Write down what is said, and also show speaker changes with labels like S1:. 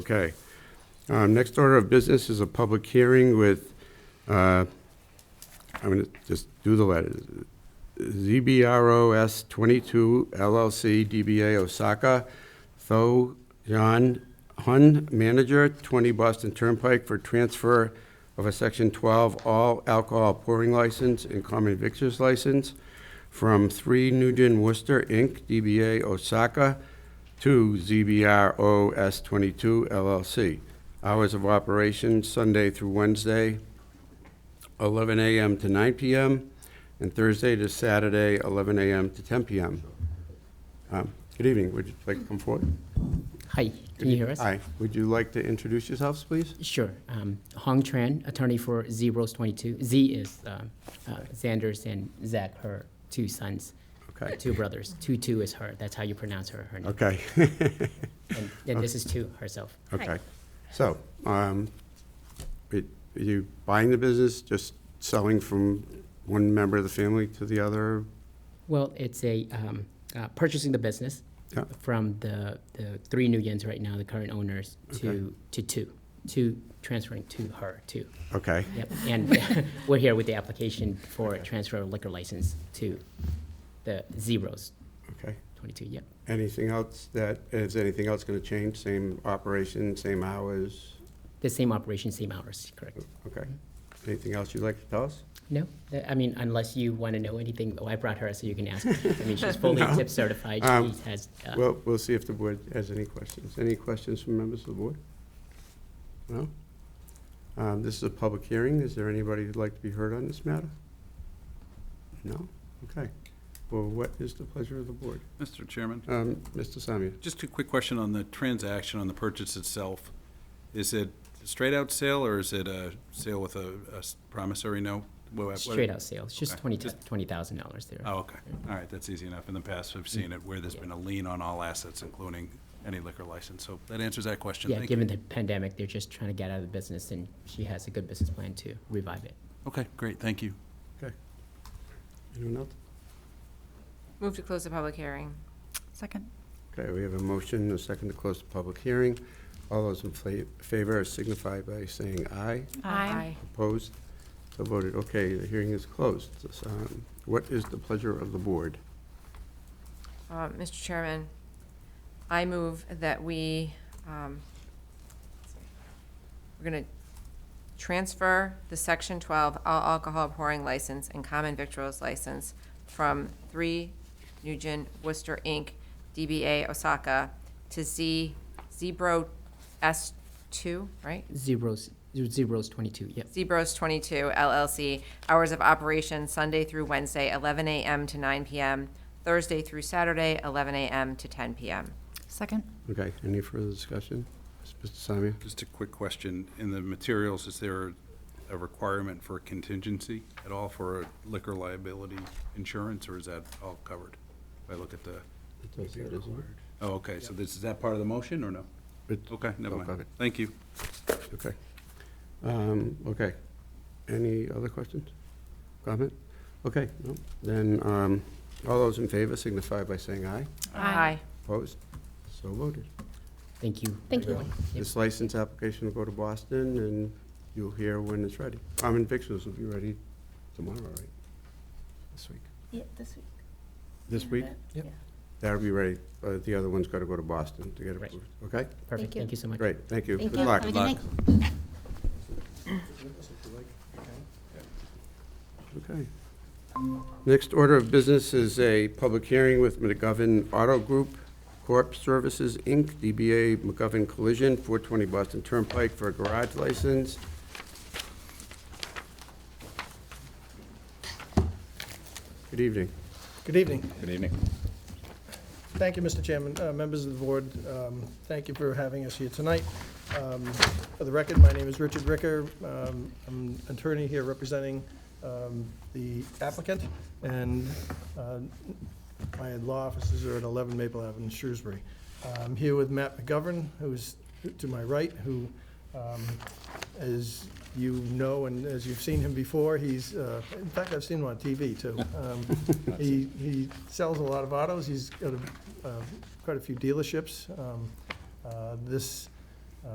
S1: Okay. Um, Next order of business is a public hearing with, uh, I'm going to just do the letters. ZBROS 22 LLC DBA Osaka, Tho John Hun, manager, 20 Boston Turnpike for transfer of a Section 12 all alcohol pouring license and common victor's license from 3 Nugent Worcester Inc., DBA Osaka, to ZBROS 22 LLC. Hours of operation Sunday through Wednesday, 11 a.m. to 9 p.m., and Thursday to Saturday, 11 a.m. to 10 p.m. Um, Good evening, would you like to come forward?
S2: Hi, can you hear us?
S1: Hi, would you like to introduce yourselves, please?
S2: Sure. Um, Hong Tran, attorney for Z Rose 22. Z is um, uh, Xander's and Zach, her two sons,
S1: Okay,
S2: two brothers. Two two is her. That's how you pronounce her, her name.
S1: okay,
S2: And then this is two herself.
S1: okay. So, um, it- are you buying the business, just selling from one member of the family to the other?
S2: Well, it's a um, uh, purchasing the business
S1: Yeah.
S2: from the, the three new yens right now, the current owners, to to two, two transferring to her two.
S1: Okay.
S2: Yep. And we're here with the application for transfer of liquor license to the Z Rose
S1: Okay.
S2: 22. Yep.
S1: Anything else that, is anything else going to change? Same operation, same hours?
S2: The same operation, same hours, correct?
S1: Okay.
S2: Mm-hmm.
S1: Anything else you'd like to tell us?
S2: No, Th- I mean, unless you want to know anything, oh, I brought her, so you can ask. I mean, she's fully
S1: No.
S2: tip certified,
S1: Um,
S2: she has, uh,
S1: Well, we'll see if the board has any questions. Any questions from members of the board? No? Um, This is a public hearing. Is there anybody who'd like to be heard on this matter? No? Okay. Well, what is the pleasure of the board?
S3: Mr. Chairman,
S1: Um, Mr. Samia?
S3: just a quick question on the transaction, on the purchase itself. Is it straight out sale or is it a sale with a a s- promissory note? What- what-
S2: straight out sales, just
S3: Okay.
S2: twenty,
S3: Just-
S2: twenty thousand dollars there.
S3: Oh, okay. All right, that's easy enough. In the past, I've seen it where there's been a lien on all assets, including any liquor license. So that answers that question.
S2: Yeah,
S3: Thank you.
S2: given the pandemic, they're just trying to get out of the business, and she has a good business plan to revive it.
S3: Okay, great, thank you.
S1: Okay. Anyone else?
S4: Move to close the public hearing.
S5: Second.
S1: Okay, we have a motion, and a second to close the public hearing. All those in fla- favor signify by saying aye. Opposed? So voted. Okay, the hearing is closed. So, um, What is the pleasure of the board?
S4: Uh, Mr. Chairman, I move that we, um, we're going to transfer the Section 12 all alcohol pouring license and common victuals license from 3 Nugent Worcester Inc., DBA Osaka, to Z, Zebro S2, right?
S2: Z Rose, Z Rose twenty-two, yep.
S4: Zebros 22 LLC, hours of operation Sunday through Wednesday, 11 a.m. to 9 p.m., Thursday through Saturday, 11 a.m. to 10 p.m.
S5: Second.
S1: Okay, any further discussion? Mr. Samia?
S3: Just a quick question. In the materials, is there a requirement for contingency at all for liquor liability insurance, or is that all covered? If I look at the Oh, okay, so this, is that part of the motion, or no?
S1: It-
S3: Okay, never
S1: Oh, okay.
S3: mind. Thank you.
S1: Okay. Um, Okay. Any other questions? Comment? Okay, no. then, um, all those in favor signify by saying aye.
S4: Aye.
S1: Opposed? So voted.
S2: Thank you.
S6: Thank you.
S2: everyone. Yep.
S1: This license application will go to Boston, and you'll hear when it's ready. Common Victuals will be ready tomorrow, right? This week.
S6: Yeah, this week.
S1: This week?
S6: Yep.
S1: That'll be ready. Uh, The other one's got to go to Boston to get
S2: Right.
S1: approved. Okay?
S2: Perfect,
S6: you.
S2: thank you so much.
S1: Great, thank you.
S6: Thank
S1: Good
S6: you.
S1: luck.
S6: Have a good
S3: luck.
S6: night.
S1: Okay. Next order of business is a public hearing with McGovern Auto Group Corp. Services, Inc., DBA McGovern Collision, 420 Boston Turnpike for a garage license. Good evening.
S7: Good evening.
S3: Good evening.
S7: Thank you, Mr. Chairman, uh, members of the board. um, Thank you for having us here tonight. Um, For the record, my name is Richard Ricker. Um, I'm an attorney here representing um, the applicant, and uh, my law offices are at 11 Maple Avenue, Shrewsbury. I'm here with Matt McGovern, who's to my right, who, um, as you know and as you've seen him before, he's, uh, in fact, I've seen him on TV, too. Um, He he sells a lot of autos. He's got a uh, quite a few dealerships. Um, uh, This